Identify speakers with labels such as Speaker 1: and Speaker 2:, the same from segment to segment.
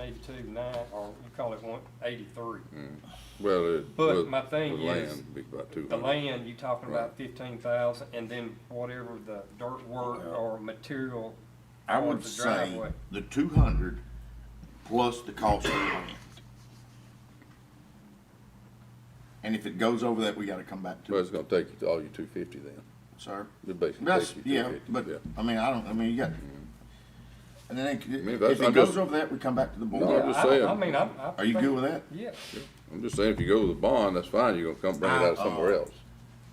Speaker 1: eighty-two nine, or you call it one eighty-three.
Speaker 2: Well, it.
Speaker 1: But
Speaker 2: with-
Speaker 1: my thing
Speaker 2: with
Speaker 1: is,
Speaker 2: land, be about two
Speaker 1: The
Speaker 2: hundred.
Speaker 1: land, you talking about fifteen thousand, and then whatever the dirt work
Speaker 3: Well,
Speaker 1: or material.
Speaker 3: I
Speaker 1: or
Speaker 3: would
Speaker 1: the
Speaker 3: say
Speaker 1: driveway.
Speaker 3: the two hundred plus the cost of the land. And if it goes over that, we gotta come back to
Speaker 2: Well,
Speaker 3: it,
Speaker 2: it's gonna take you to all your two fifty then.
Speaker 3: sir.
Speaker 2: It basically
Speaker 3: That's,
Speaker 2: takes you to
Speaker 3: yeah,
Speaker 2: 250,
Speaker 3: but,
Speaker 2: yeah. Mm-hmm.
Speaker 3: I mean, I don't, I mean, you got, and then it-
Speaker 2: mean, that's-
Speaker 3: if it
Speaker 2: I'm
Speaker 3: goes
Speaker 2: just-
Speaker 3: over that, we come back to the
Speaker 2: No, I'm
Speaker 3: board.
Speaker 2: just
Speaker 1: I don't- I
Speaker 2: saying.
Speaker 1: mean, I'm, I.
Speaker 3: Are you good
Speaker 1: think-
Speaker 3: with that?
Speaker 1: Yeah,
Speaker 2: I'm just saying, if you go with the bond, that's fine, you're gonna come bring it out somewhere else.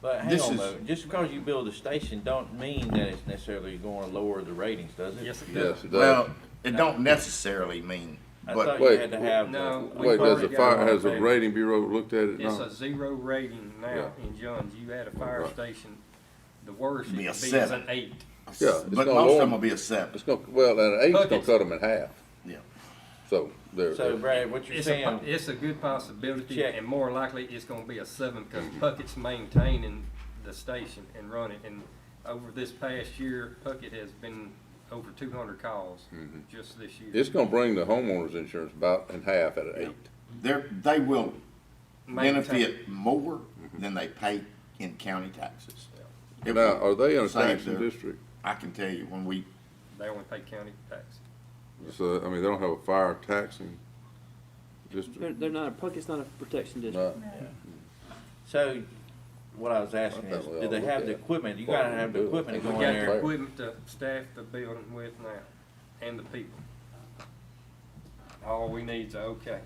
Speaker 4: But hang
Speaker 3: This
Speaker 4: on
Speaker 3: is-
Speaker 4: though, just because you build a station don't mean that it's necessarily going to lower the ratings, does it?
Speaker 1: yes, it does.
Speaker 2: Yes, it does.
Speaker 3: Well, it don't necessarily mean,
Speaker 4: I
Speaker 3: but
Speaker 4: thought you
Speaker 2: Wait,
Speaker 4: had to have. the-
Speaker 1: No, we-
Speaker 2: Wait, does the
Speaker 1: already got
Speaker 2: fire, has the
Speaker 1: one.
Speaker 2: rating bureau looked at it?
Speaker 1: It's
Speaker 2: No.
Speaker 1: a zero rating now in Johns. You had a fire
Speaker 2: Right.
Speaker 1: station, the worst it
Speaker 3: Be
Speaker 1: could
Speaker 3: a
Speaker 1: be is an
Speaker 3: seven.
Speaker 1: eight.
Speaker 2: Yeah, it's not
Speaker 3: but most of them
Speaker 2: warm.
Speaker 3: will be a seven,
Speaker 2: It's gonna, well, and an eight's gonna
Speaker 1: Buckets.
Speaker 2: cut them in half,
Speaker 3: yeah.
Speaker 2: so there.
Speaker 4: So
Speaker 2: there-
Speaker 4: Brad, what you're
Speaker 1: It's a,
Speaker 4: saying,
Speaker 1: po- it's a good possibility
Speaker 4: Check.
Speaker 1: and more likely it's gonna be a seven because Puckett's maintaining the station and running. And over this past year, Puckett has been over two hundred calls just this year.
Speaker 2: It's gonna bring the homeowner's insurance about in half at an eight.
Speaker 3: They're, they will
Speaker 1: Maintain-
Speaker 3: benefit more than they pay in county taxes. It
Speaker 2: Now,
Speaker 3: will-
Speaker 2: are they in a
Speaker 3: Same
Speaker 2: taxing
Speaker 3: there.
Speaker 2: district?
Speaker 3: I can tell you, when we,
Speaker 1: They only pay county tax.
Speaker 2: So, I mean, they don't have a fire taxing
Speaker 5: They're,
Speaker 2: district?
Speaker 5: they're not, a Puckett's not a protection district.
Speaker 2: No.
Speaker 4: so what I was asking
Speaker 2: I thought
Speaker 4: is,
Speaker 2: we
Speaker 4: do
Speaker 2: all
Speaker 4: they
Speaker 2: looked
Speaker 4: have the
Speaker 2: at it.
Speaker 4: equipment? You
Speaker 2: Well,
Speaker 4: gotta
Speaker 2: we
Speaker 4: have the
Speaker 2: do.
Speaker 1: We
Speaker 4: equipment to
Speaker 1: got
Speaker 4: go in
Speaker 1: the
Speaker 4: there.
Speaker 1: equipment to staff the building with now and the people. All we need's a okay.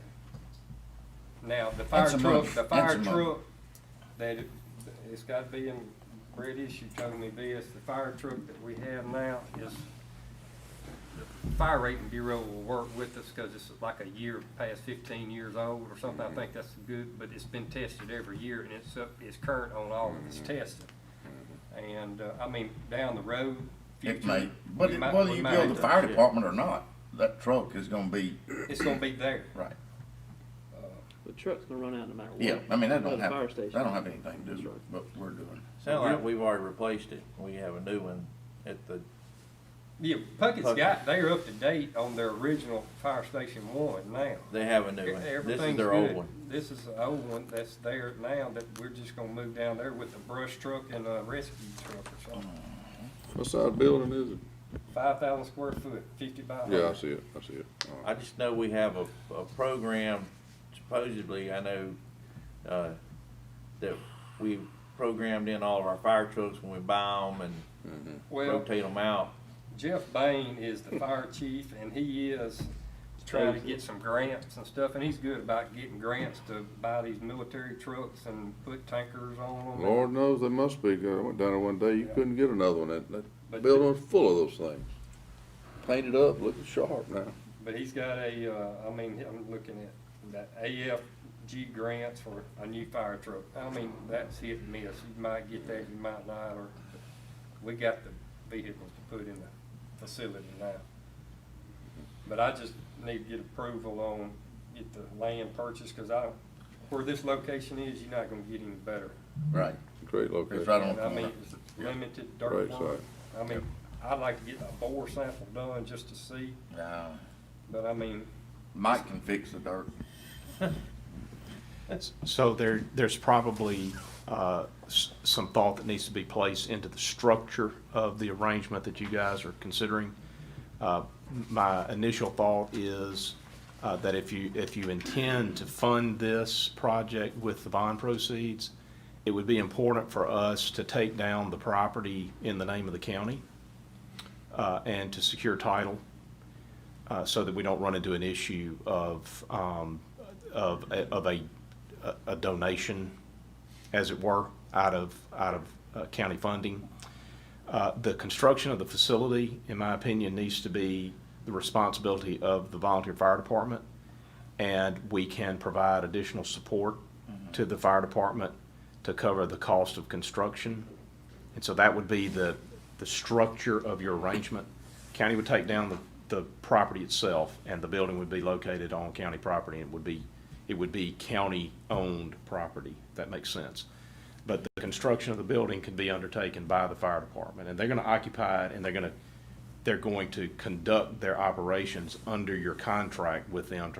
Speaker 1: Now, the fire
Speaker 3: That's a
Speaker 1: truck,
Speaker 3: month.
Speaker 1: the
Speaker 3: That's
Speaker 1: fire
Speaker 3: a month.
Speaker 1: truck, that, it- it's gotta be in, Brett issue told me this, the fire truck that we have now is, the fire rating bureau will work with us, cause it's like a year past fifteen years old or something, I
Speaker 3: Mm-hmm.
Speaker 1: think that's good, but it's been tested every year and it's up, it's current on all of
Speaker 3: Mm-hmm.
Speaker 1: its testing. And, uh, I mean, down the road.
Speaker 3: it
Speaker 1: future,
Speaker 3: may, but
Speaker 1: we
Speaker 3: it-
Speaker 1: might-
Speaker 3: whether
Speaker 1: we
Speaker 3: you
Speaker 1: might
Speaker 3: build
Speaker 1: have
Speaker 3: the
Speaker 1: to-
Speaker 3: fire
Speaker 4: yeah.
Speaker 3: department or not, that truck is gonna be,
Speaker 1: It's gonna be there.
Speaker 3: right,
Speaker 5: The truck's gonna run out no matter what.
Speaker 3: yeah, I mean, that
Speaker 5: Another
Speaker 3: don't have,
Speaker 5: fire
Speaker 3: that
Speaker 5: station.
Speaker 3: don't have anything to do with what we're doing.
Speaker 4: Sound like we've already replaced it. We have a new one at the,
Speaker 1: Yeah, Puckett's got, they're up to date on their original fire station one now. E,
Speaker 4: they have a new one. This is
Speaker 1: Everything's
Speaker 4: their old
Speaker 1: good.
Speaker 4: one.
Speaker 1: This is the old one that's there now that we're just gonna move down there with the brush truck and a rescue truck or something.
Speaker 2: What side of building is it?
Speaker 1: Five thousand square foot, fifty by
Speaker 2: Yeah, I
Speaker 1: hundred.
Speaker 2: see it, I see it. Uh, All right.
Speaker 4: I just know we have a, a program supposedly, I know, uh, that we programmed in all of our fire trucks when we buy them and
Speaker 1: Well,
Speaker 4: rotate them out.
Speaker 1: Jeff Bain is the fire chief and he is trying to get some grants and stuff. And he's good about getting grants to buy these military trucks and put tankers on them.
Speaker 2: Lord knows they must be, 'cause I went down there one day, you
Speaker 1: Yeah.
Speaker 2: couldn't get another one, that, that
Speaker 1: But-
Speaker 2: building was full of those things. Painted up, looking sharp now.
Speaker 1: But he's got a, uh, I mean, I'm looking at that AFG grants for a new fire truck. I mean, that's hit and miss. You might get that, you might not, or we got the vehicles to put in the facility now. But I just need to get approval on, get the land purchased, cause I don't, where this location is, you're not gonna get any better.
Speaker 3: Right.
Speaker 2: Great location.
Speaker 3: It's right on
Speaker 1: And
Speaker 3: the
Speaker 1: I mean,
Speaker 3: corner.
Speaker 1: it's limited
Speaker 2: Right
Speaker 1: dirt work.
Speaker 2: side.
Speaker 1: I mean, I'd like to get a bore sample done just to see,
Speaker 3: Yeah.
Speaker 1: but I mean,
Speaker 3: Mike can fix the dirt.
Speaker 6: So there, there's probably uh, s- some thought that needs to be placed into the structure of the arrangement that you guys are considering. Uh, My initial thought is uh, that if you, if you intend to fund this project with the bond proceeds, it would be important for us to take down the property in the name of the county uh, and to secure title uh, so that we don't run into an issue of, um, of, a- of a, a- a donation, as it were, out of, out of uh, county funding. Uh, The construction of the facility, in my opinion, needs to be the responsibility of the volunteer fire department. And we can provide additional support to the fire department to cover the cost of construction. And so that would be the, the structure of your arrangement. County would take down the, the property itself, and the building would be located on county property, and it would be, it would be county-owned property, if that makes sense. But the construction of the building can be undertaken by the fire department, and they're gonna occupy it, and they're gonna they're going to conduct their operations under your contract with them to